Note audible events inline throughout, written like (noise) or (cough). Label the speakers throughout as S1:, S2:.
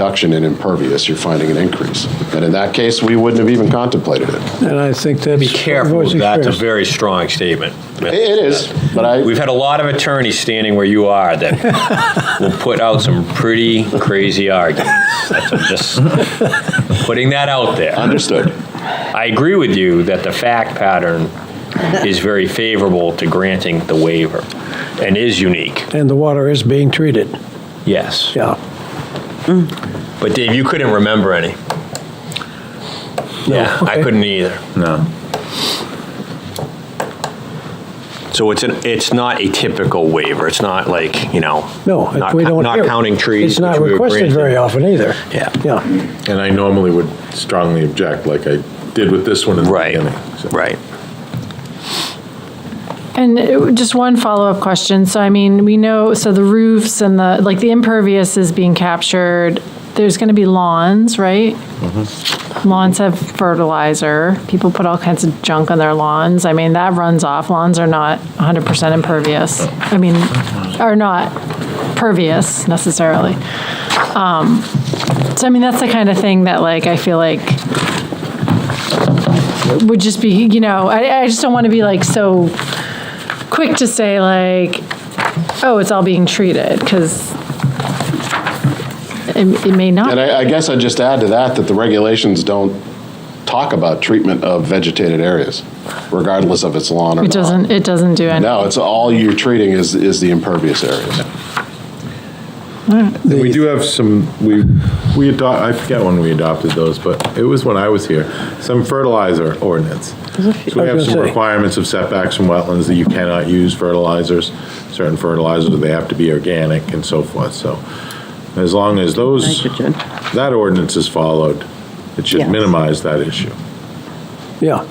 S1: reduction in impervious, you're finding an increase. And in that case, we wouldn't have even contemplated it.
S2: And I think that's.
S3: Be careful with
S2: voice
S3: that. It's a
S2: expressed.
S3: very strong statement.
S1: It is, but I.
S3: We've had a lot of attorneys standing where you are that will put out some pretty crazy arguments. That's- I'm just putting that out there.
S1: Understood.
S3: I agree with you that the fact pattern is very favorable to granting the waiver and is unique,
S2: And the water is being treated,
S3: yes.
S2: yeah.
S3: But Dave, you couldn't remember any. Yeah, I
S2: okay.
S3: couldn't either.
S4: No.
S3: So it's an, it's not a typical waiver. It's not like, you know.
S2: No,
S3: not
S2: we
S3: co-
S2: don't.
S3: Not
S2: hear it.
S3: counting trees.
S2: It's not
S3: which we were
S2: requested
S3: granted.
S2: very often either.
S3: Yeah.
S2: Yeah.
S4: And I normally would strongly object, like I did with this one in the
S3: Right,
S4: beginning. so.
S3: right.
S5: And it- just one follow-up question. So I mean, we know, so the roofs and the, like, the impervious is being captured. There's going to be lawns, right? Lawns have fertilizer. People put all kinds of junk on their lawns. I mean, that runs off. Lawns are not 100% impervious. I mean, are not pervious necessarily. Um, So I mean, that's the kind of thing that like, I feel like would just be, you know, I, I just don't want to be like so quick to say like, oh, it's all being treated, because it, it may
S1: And
S5: not.
S1: I, I guess I'd just add to that, that the regulations don't talk about treatment of vegetated areas, regardless of its lawn or not.
S5: It doesn't, it doesn't do anything.
S1: No, it's all you're treating is, is the impervious areas.
S4: We do have some, we, we adopt, I forget when we adopted those, but it was when I was here, some fertilizer ordinance. So we
S2: I
S4: have
S2: was
S4: some
S2: gonna say.
S4: requirements of setbacks from wetlands that you cannot use fertilizers, certain fertilizers, they have to be organic and so forth, so. As long as those,
S6: Nitrogen.
S4: that ordinance is followed, it should
S6: Yes.
S4: minimize that issue.
S2: Yeah.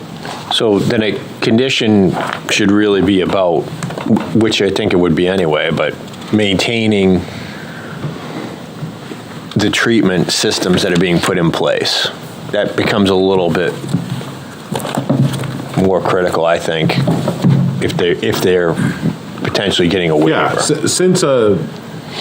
S3: So then a condition should really be about, which I think it would be anyway, but maintaining the treatment systems that are being put in place. That becomes a little bit more critical, I think, if they, if they're potentially getting a
S4: Yeah,
S3: waiver.
S4: s- since a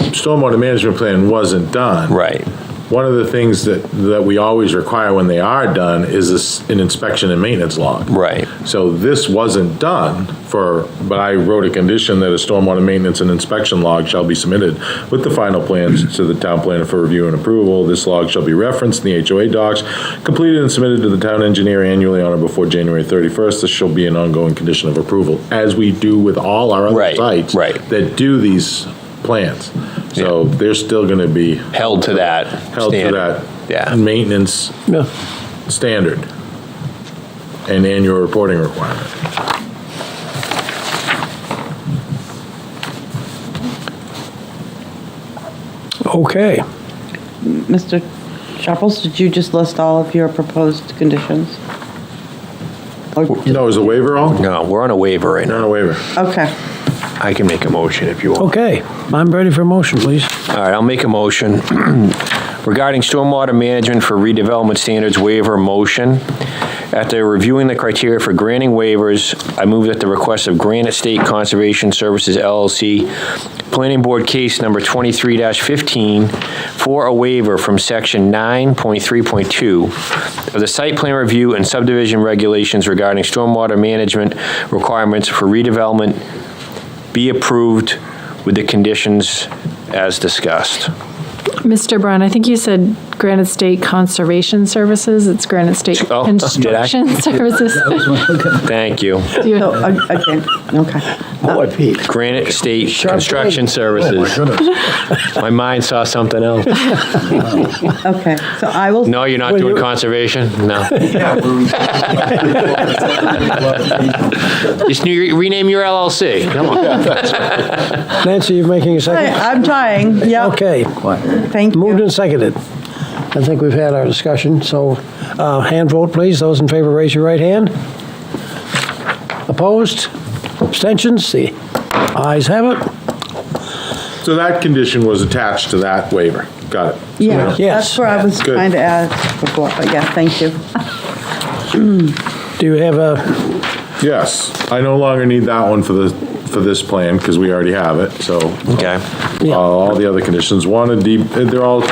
S4: stormwater management plan wasn't done.
S3: Right,
S4: One of the things that, that we always require when they are done is this- an inspection and maintenance log.
S3: right.
S4: So this wasn't done for, but I wrote a condition that a stormwater maintenance and inspection log shall be submitted with the final plans to the town planner for review and approval. This log shall be referenced in the HOA docs, completed and submitted to the town engineer annually on or before January 31st. This shall be an ongoing condition of approval, as we do with all our other
S3: Right,
S4: sites
S3: right.
S4: that do these plans. So they're still going to be
S3: Held to that
S4: held to
S3: standard.
S4: that
S3: Yeah.
S4: maintenance
S2: Yeah.
S4: standard and annual reporting requirement.
S2: Okay.
S6: Mr. Chapples, did you just list all of your proposed conditions? Or-
S4: No, is a waiver all?
S3: No, we're on a waiver right
S4: Not
S3: now.
S4: a waiver.
S6: Okay.
S3: I can make a motion if you want.
S2: Okay. I'm ready for motion, please.
S3: All right, I'll make a motion (clears throat) regarding stormwater management for redevelopment standards waiver motion. After reviewing the criteria for granting waivers, I move that the request of Granite State Conservation Services LLC, Planning Board Case Number 23-15, for a waiver from Section 9.3.2 of the Site Plan Review and Subdivision Regulations regarding stormwater management requirements for redevelopment be approved with the conditions as discussed.
S5: Mr. Brown, I think you said Granite State Conservation Services, it's Granite State
S3: Oh, did I? (laughs)
S5: Construction Services.
S3: Thank you.
S5: Do you-
S6: So, o- okay, okay.
S2: Boy, Pete.
S3: Granite State Construction
S2: Oh
S3: Services. My mind saw something else.
S6: Okay, so I will,
S3: No, you're not
S2: Well,
S3: doing
S2: you-
S3: conservation?
S2: (laughs)
S3: No. Just new- rename your LLC. Come on.
S2: (laughs) Nancy, you're making a
S6: Hey,
S2: second?
S6: I'm trying, yeah,
S2: Okay.
S6: thank
S2: Moved
S6: you.
S2: and seconded. I think we've had our discussion, so uh, hand vote, please. Those in favor, raise your right hand. Opposed? Abstentions? The ayes have it.
S4: So that condition was attached to that waiver. Got it.
S6: Yeah,
S2: Yes.
S6: that's where I was
S4: Good.
S6: trying to ask before, but yeah, thank you.
S2: Do you have a,
S4: Yes, I no longer need that one for the, for this plan because we already have it, so.
S3: Okay.
S4: Uh, All the other conditions, one, a deep, they're all